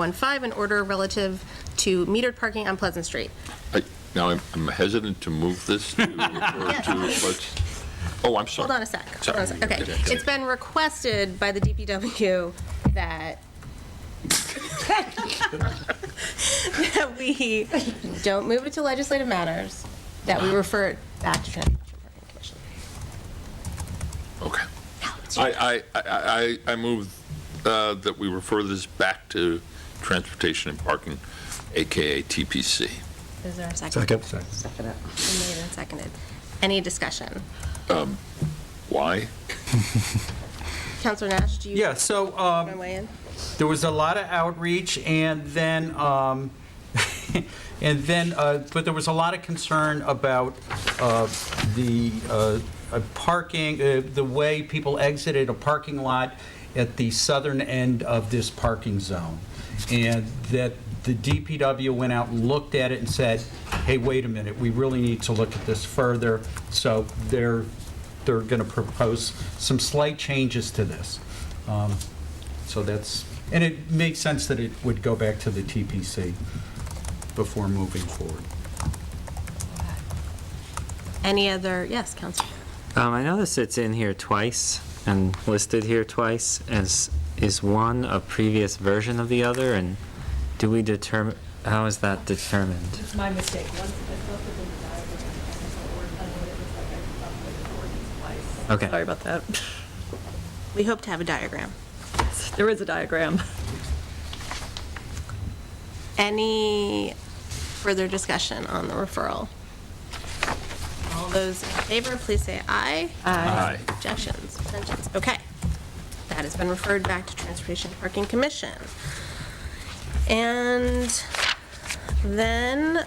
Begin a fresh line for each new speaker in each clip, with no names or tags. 015, an order relative to metered parking on Pleasant Street.
I- Now, I'm I'm hesitant to move this to, or to, let's- oh, I'm sorry.
Hold on a sec. Hold on a sec. Okay. It's been requested by the DPW that that we don't move it to legislative matters, that we refer it back to Transportation Parking Commission.
Okay. I, I, I, I I move uh, that we refer this back to Transportation and Parking, AKA TPC.
Is there a
Second.
second? Second. Made and seconded. Any discussion?
Why?
Counselor Nash, do you
Yeah, so um,
want to weigh in?
there was a lot of outreach, and then, um, and then, uh, but there was a lot of concern about uh, the uh, uh, parking, uh, the way people exited a parking lot at the southern end of this parking zone, and that the DPW went out and looked at it and said, hey, wait a minute, we really need to look at this further, so they're, they're going to propose some slight changes to this. Um, so that's, and it makes sense that it would go back to the TPC before moving forward.
Any other, yes, Counselor.
Um, I noticed it's in here twice and listed here twice as, is one a previous version of the other? And do we determine, how is that determined?
It's my mistake. Once I thought that they were dialed, I was like, "We're done with it." It's like I thought that the ordinance twice.
Okay.
Sorry about that.
We hope to have a diagram.
There is a diagram.
Any further discussion on the referral? All those in favor, please say aye.
Aye.
Objections, abstentions, okay. That has been referred back to Transportation and Parking Commission. And then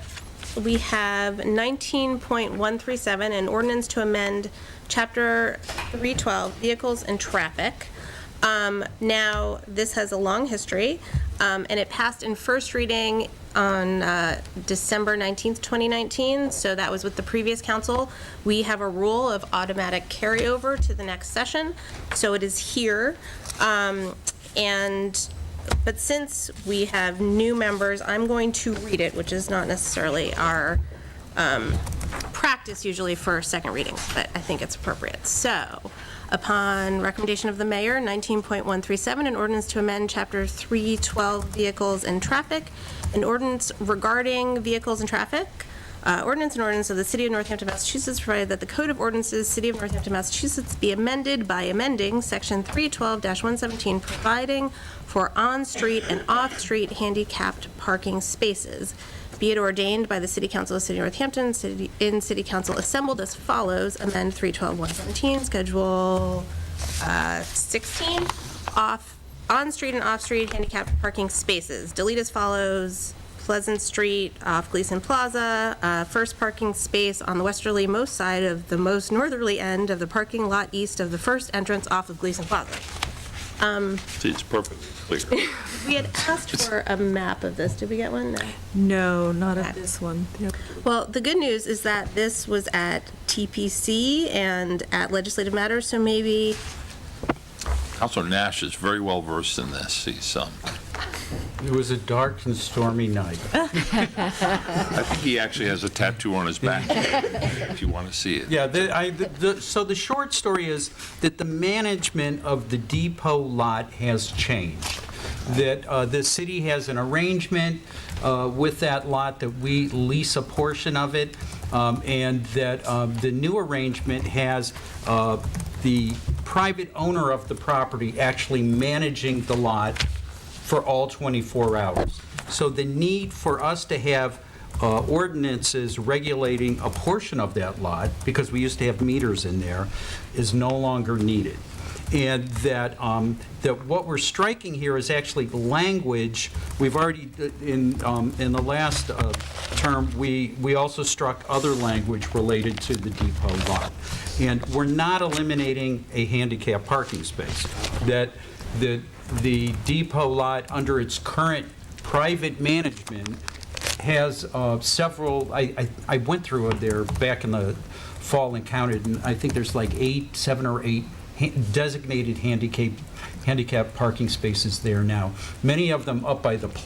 we have 19.137, an ordinance to amend Chapter 312, Vehicles and Traffic. Um, Now, this has a long history, um, and it passed in first reading on uh, December 19th, 2019, so that was with the previous council. We have a rule of automatic carryover to the next session, so it is here. Um, And but since we have new members, I'm going to read it, which is not necessarily our um, practice usually for second readings, but I think it's appropriate. So, upon recommendation of the mayor, 19.137, an ordinance to amend Chapter 312 Vehicles and Traffic, an ordinance regarding vehicles and traffic, uh, ordinance and ordinance of the City of Northampton, Massachusetts, provided that the Code of Ordinances, City of Northampton, Massachusetts, be amended by amending Section 312-117, providing for on-street and off-street handicapped parking spaces. Be it ordained by the City Council of the City of Northampton, city- in City Council assembled as follows, amend 312-117, Schedule uh, 16, off, on-street and off-street handicapped parking spaces. Delete as follows, Pleasant Street off Gleason Plaza, uh, first parking space on the westerly most side of the most northerly end of the parking lot east of the first entrance off of Gleason Plaza.
See, it's perfectly clear.
We had asked for a map of this, did we get one? No.
No, not
at
at
this
this one.
Well, the good news is that this was at TPC and at Legislative Matters, so maybe,
Counselor Nash is very well versed in this. He's, um,
It was a dark and stormy night.
I think he actually has a tattoo on his back, if you want to see it.
Yeah, the, I, the- the, so the short story is that the management of the depot lot has changed. That uh, the city has an arrangement uh, with that lot that we lease a portion of it, um, and that um, the new arrangement has uh, the private owner of the property actually managing the lot for all 24 hours. So the need for us to have uh, ordinances regulating a portion of that lot, because we used to have meters in there, is no longer needed. And that, um, that what we're striking here is actually language, we've already, in, um, in the last uh, term, we, we also struck other language related to the depot lot. And we're not eliminating a handicap parking space. That, that the depot lot, under its current private management, has uh, several, I, I- I went through there back in the fall and counted, and I think there's like eight, seven or eight ha- designated handicap, handicap parking spaces there now, many of them up by the pl-